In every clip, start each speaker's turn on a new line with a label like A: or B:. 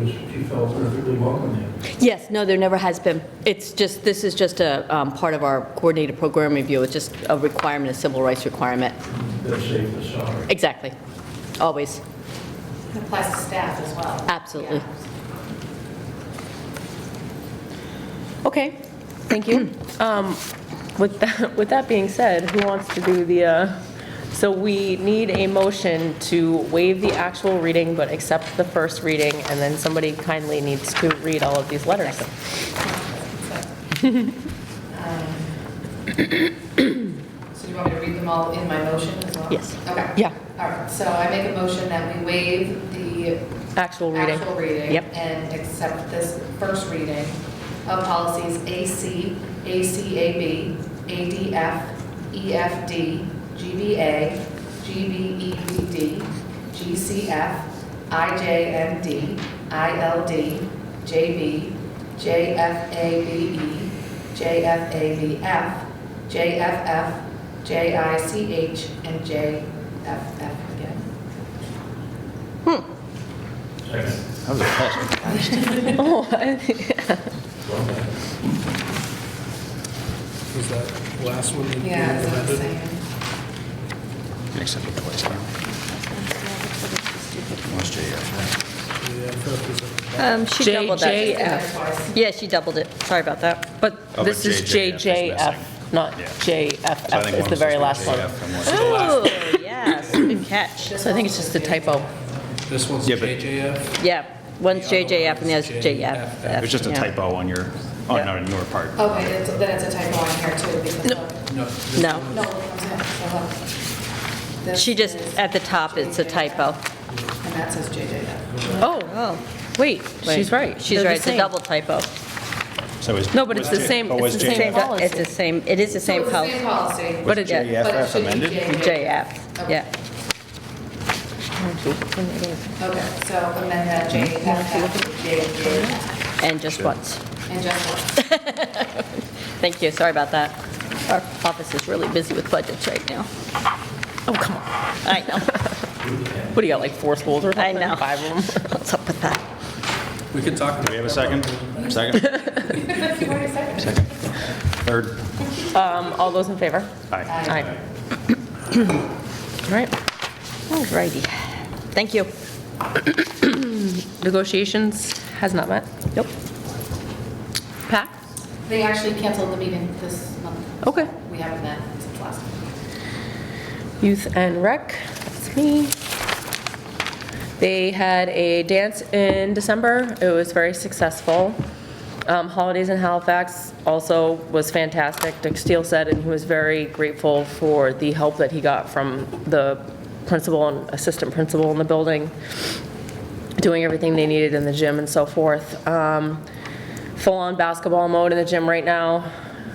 A: which she felt perfectly welcome in.
B: Yes, no, there never has been. It's just, this is just a um, part of our coordinated program review. It's just a requirement, a civil rights requirement.
A: They'll save the sorry.
B: Exactly. Always.
C: It applies to staff as well.
D: Ah.
B: Absolutely.
C: Yeah.
D: Okay, thank you. Um, With that, with that being said, who wants to do the, uh, so we need a motion to waive the actual reading but accept the first reading, and then somebody kindly needs to read all of these letters.
C: um, So do you want me to read them all in my motion as well?
D: Yes.
C: Okay.
D: Yeah.
C: All right, so I make a motion that we waive the
D: Actual reading.
C: actual reading
D: Yep.
C: and accept this first reading of policies AC, ACAB, ADF, E EFD, GBA, E GBEBD, GCF, IJMD, ILD, JB, JFABE, JFABF, JFF, JICH, and JFF again.
A: Second.
E: That was a fast one.
D: Oh, I-
A: Well done.
F: Was that last one? that you
C: Yeah, that's what I'm
F: amended?
C: saying.
E: Except for twice now. Lost JF.
F: Yeah, I thought it was a-
G: Um, She
D: J-
G: doubled that.
D: J-
C: Twice.
G: Yeah, she doubled it. Sorry about that.
D: But
E: Oh, but
D: this is
E: JJF is missing.
D: JJF, not
E: Yeah. So I
D: JFF
E: think
D: is
E: one
D: the
E: was
D: very
E: just
D: last one.
E: JF and one was the last.
G: Oh, yes, good catch.
D: So I think it's just a typo.
F: This one's
E: Yeah, but-
F: JJF?
G: Yeah, one's
F: The other
G: JJF and the
F: one's
G: other's JF.
F: JFF.
E: It was just a
G: Yeah.
E: typo on your, oh,
D: Yeah.
E: not on your part.
C: Okay, it's- then it's a typo on here too, because. of-
F: No. this
G: No.
F: one-
C: No, it comes in, so look. This
G: She just,
C: is-
G: at the top, it's a typo.
C: And that says JJF.
D: Oh,
G: Oh,
D: wait,
G: wait.
D: she's right.
G: She's
D: They're the
G: right, it's a
D: same.
G: double typo.
E: So is.
D: No, but it's
E: was
D: the
E: J-
D: same-
E: but
D: it's
E: was
D: the
E: J-
D: same
G: But
D: policy.
G: It's the same, it is the same
C: So it's
G: policy.
C: the same policy.
G: But
E: Was
G: it- but it
E: JFF
C: should be
E: amended?
G: JF, yeah.
C: Okay, so amend that JFF to JJF,
G: And just once.
C: and just one.
G: Thank you, sorry about that. Our office is really busy with budgets right now.
D: Oh, come on.
G: I know,
D: What do you got, like four schools or something?
G: I know.
D: Five of them?
G: What's up with that?
F: We can talk about
E: Do we have a second? Second?
C: You already said it.
E: Third?
D: Um, All those in favor?
E: Aye.
D: Aye. All right,
G: Alrighty, thank you.
D: negotiations has not met.
G: Nope.
D: PAC?
C: They actually canceled the meeting this month.
D: Okay.
C: We haven't met since last month.
D: Youth and Rec, that's me. They had a dance in December. It was very successful. Um, Holidays in Halifax also was fantastic. Dick Steele said, and he was very grateful for the help that he got from the principal and assistant principal in the building, doing everything they needed in the gym and so forth. Um, Full-on basketball mode in the gym right now.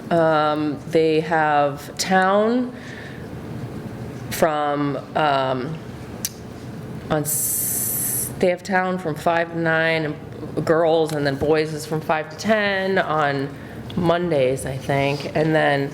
D: Um, They have town from, um, on, s- they have town from 5 to 9, and girls, and then boys is from 5 to 10 on Mondays, I think, and then,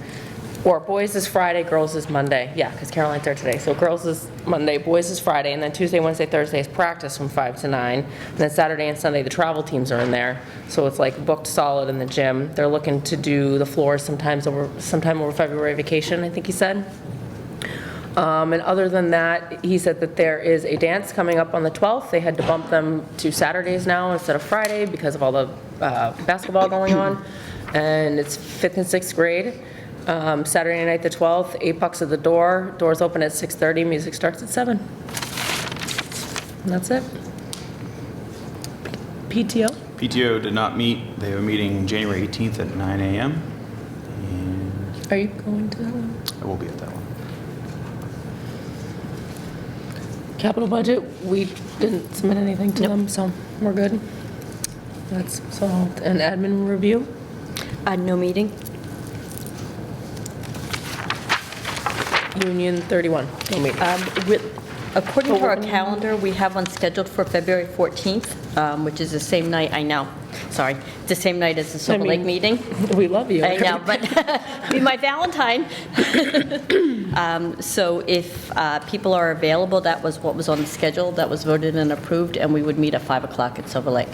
D: or boys is Friday, girls is Monday, yeah, because Caroline's there today, so girls is Monday, boys is Friday, and then Tuesday, Wednesday, Thursday is practice from 5 to 9, and then Saturday and Sunday, the travel teams are in there, so it's like booked solid in the gym. They're looking to do the floors sometimes over, sometime over February vacation, I think he said. Um, And other than that, he said that there is a dance coming up on the 12th. They had to bump them to Saturdays now instead of Friday because of all the uh, basketball going on. And it's fifth and sixth grade. Um, Saturday night, the 12th, eight bucks at the door. Doors open at 6:30, music starts at seven. And that's it. PTO?
E: PTO did not meet. They have a meeting January 18th at 9 AM. And
D: Are you going to that one?
E: I will be at that one.
D: Capital budget, we didn't submit anything to them, so we're good. That's solved. And admin review?
G: Uh, no meeting?
D: Union 31, no meeting.
G: Um, with-
D: Oh,
G: According to our calendar, we have one scheduled for February 14th, um, which is the same night, I know, sorry, the same night as the Silver Lake
D: mean-
G: meeting.
D: We love you.
G: I know, but be my Valentine. Um, So if uh, people are available, that was what was on the schedule, that was voted and approved, and we would meet at 5 o'clock at Silver Lake.